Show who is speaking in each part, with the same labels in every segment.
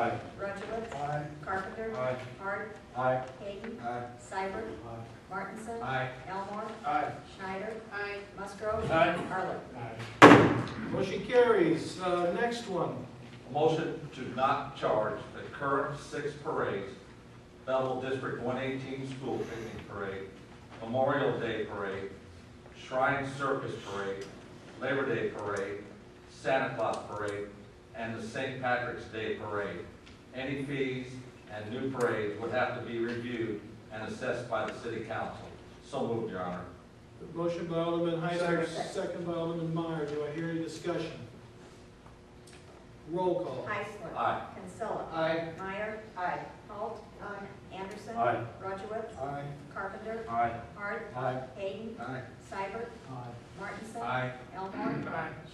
Speaker 1: Aye.
Speaker 2: Rudowitz.
Speaker 1: Aye.
Speaker 2: Carpenter.
Speaker 1: Aye.
Speaker 2: Hart.
Speaker 1: Aye.
Speaker 2: Hayden.
Speaker 1: Aye.
Speaker 2: Seibert.
Speaker 1: Aye.
Speaker 2: Martinson.
Speaker 1: Aye.
Speaker 2: Elmore.
Speaker 1: Aye.
Speaker 2: Schneider. Aye. Musgrove.
Speaker 1: Aye.
Speaker 2: Arlen.
Speaker 1: Motion carries. Uh, Next one.
Speaker 3: Motion to not charge the current six parades, Belleville District 118 School Picnic Parade, Memorial Day Parade, Shrine Circus Parade, Labor Day Parade, Santa Claus Parade, and the St. Patrick's Day Parade. Any fees and new parades would have to be reviewed and assessed by the city council. So moved, Your Honor.
Speaker 1: Motion by Alderman Heisler,
Speaker 2: Second.
Speaker 1: second by Alderman Meyer. Do I hear any discussion? Roll call.
Speaker 2: Heisler.
Speaker 3: Aye.
Speaker 2: Kinsella.
Speaker 1: Aye.
Speaker 2: Meyer. Aye. Holt. Aye. Anderson.
Speaker 3: Aye.
Speaker 2: Rudowitz.
Speaker 1: Aye.
Speaker 2: Carpenter.
Speaker 3: Aye.
Speaker 2: Hart.
Speaker 1: Aye.
Speaker 2: Hayden.
Speaker 3: Aye.
Speaker 2: Seibert.
Speaker 1: Aye.
Speaker 2: Martinson.
Speaker 3: Aye.
Speaker 2: Elmore.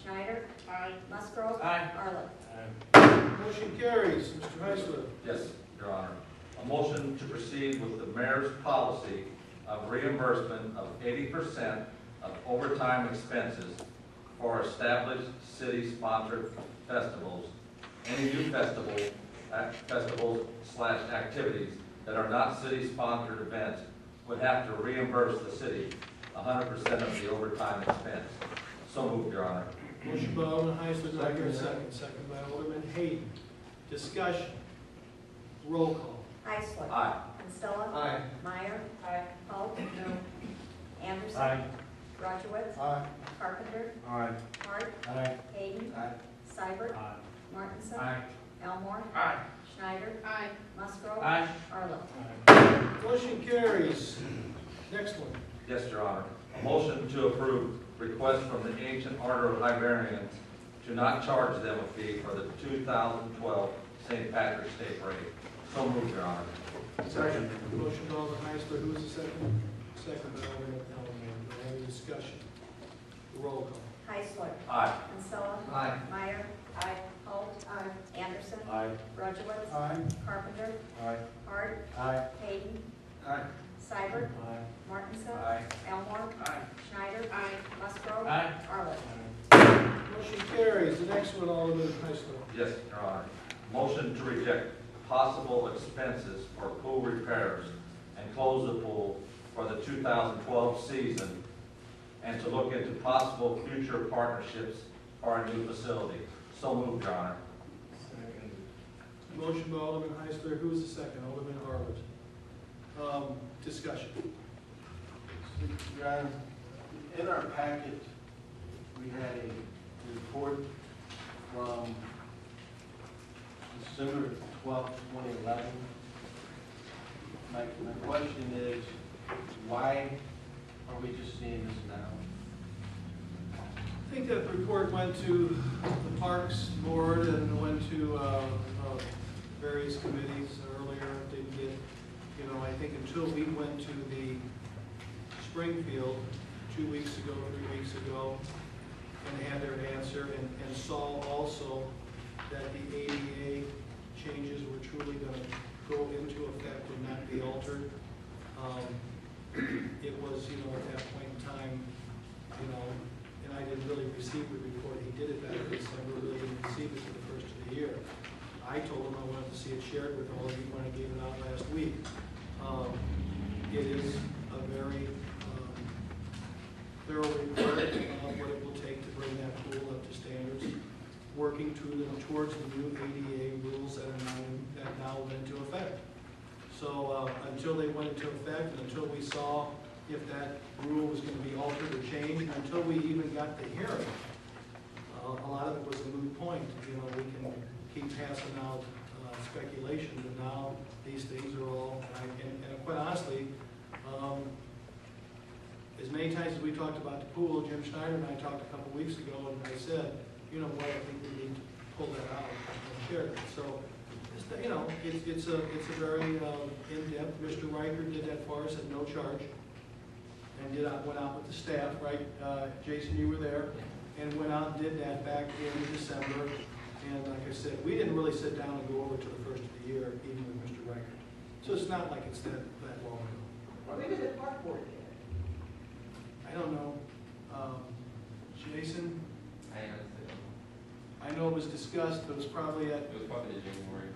Speaker 2: Schneider.
Speaker 1: Aye.
Speaker 2: Musgrove.
Speaker 3: Aye.
Speaker 2: Arlen.
Speaker 1: Motion carries. Mr. Heisler.
Speaker 3: Yes, Your Honor. A motion to proceed with the mayor's policy of reimbursement of eighty percent of overtime expenses for established city-sponsored festivals, any new festival, ac- festivals slash activities that are not city-sponsored events would have to reimburse the city hundred percent of the overtime expense. So moved, Your Honor.
Speaker 1: Motion by Alderman Heisler, do I hear a second? Second by Alderman Hayden. Discussion. Roll call.
Speaker 2: Heisler.
Speaker 3: Aye.
Speaker 2: Kinsella.
Speaker 1: Aye.
Speaker 2: Meyer. Aye. Holt. No. Anderson. Rudowitz.
Speaker 1: Aye.
Speaker 2: Carpenter.
Speaker 1: Aye.
Speaker 2: Hart.
Speaker 1: Aye.
Speaker 2: Hayden.
Speaker 1: Aye.
Speaker 2: Seibert.
Speaker 1: Aye.
Speaker 2: Martinson.
Speaker 1: Aye.
Speaker 2: Elmore.
Speaker 1: Aye.
Speaker 2: Schneider. Aye. Musgrove.
Speaker 1: Aye.
Speaker 2: Arlen.
Speaker 1: Motion carries. Next one.
Speaker 3: Yes, Your Honor. A motion to approve request from the Ancient Order of Hibernians to not charge them a fee for the 2012 St. Patrick's Day Parade. So moved, Your Honor.
Speaker 1: Second. Motion by Alderman Heisler, who is the second? Second by Alderman Elmore. Do I have any discussion? Roll call.
Speaker 2: Heisler.
Speaker 3: Aye.
Speaker 2: Kinsella.
Speaker 3: Aye.
Speaker 2: Meyer. Aye. Holt. Aye. Anderson.
Speaker 3: Aye.
Speaker 2: Rudowitz.
Speaker 1: Aye.
Speaker 2: Carpenter.
Speaker 3: Aye.
Speaker 2: Hart.
Speaker 3: Aye.
Speaker 2: Hayden.
Speaker 3: Aye.
Speaker 2: Seibert.
Speaker 1: Aye.
Speaker 2: Martinson.
Speaker 3: Aye.
Speaker 2: Elmore.
Speaker 3: Aye.
Speaker 2: Schneider. Aye. Musgrove.
Speaker 3: Aye.
Speaker 2: Arlen.
Speaker 1: Motion carries. The next one, Alderman Heisler.
Speaker 3: Yes, Your Honor. Motion to reject possible expenses for pool repairs and close the pool for the 2012 season and to look into possible future partnerships for a new facility. So moved, Your Honor.
Speaker 1: Motion by Alderman Heisler, who is the second? Alderman Harwood. Um, discussion.
Speaker 4: Your Honor, in our packet, we had a report from December twelfth, twenty eleven. My, my question is, why are we just seeing this now?
Speaker 1: I think that the report went to the Parks Board and went to, uh, uh, various committees earlier, didn't get, you know, I think until we went to the Springfield two weeks ago, three weeks ago, and had their answer, and, and saw also that the ADA changes were truly gonna go into effect and not be altered. Um, It was, you know, at that point in time, you know, and I didn't really receive the report, he did it back in December, really didn't receive it for the first of the year. I told him I wanted to see it shared with all of you when I gave it out last week. Um, It is a very um, thorough report of what it will take to bring that pool up to standards, working to the- towards the new ADA rules that are now, that now went into effect. So uh, until they went into effect, and until we saw if that rule was gonna be altered or changed, and until we even got the hearing, uh, a lot of it was a moot point, you know, we can keep passing out uh, speculation, but now these things are all, and I- and, and quite honestly, um, as many times as we talked about the pool, Jim Schneider and I talked a couple weeks ago, and I said, you know what, I think we need to pull that out and share it, so, it's, you know, it's, it's a, it's a very um, in-depth, Mr. Riker did that for us at no charge, and did, out- went out with the staff, right, Uh, Jason, you were there, and went out and did that back in December, and like I said, we didn't really sit down and go over to the first of the year, even with Mr. Riker, so it's not like it's that, that long ago.
Speaker 5: When did the park board do
Speaker 1: I don't know. Um, Jason,
Speaker 6: I honestly don't know.
Speaker 1: I know it was discussed, but it was probably at
Speaker 6: It was probably January.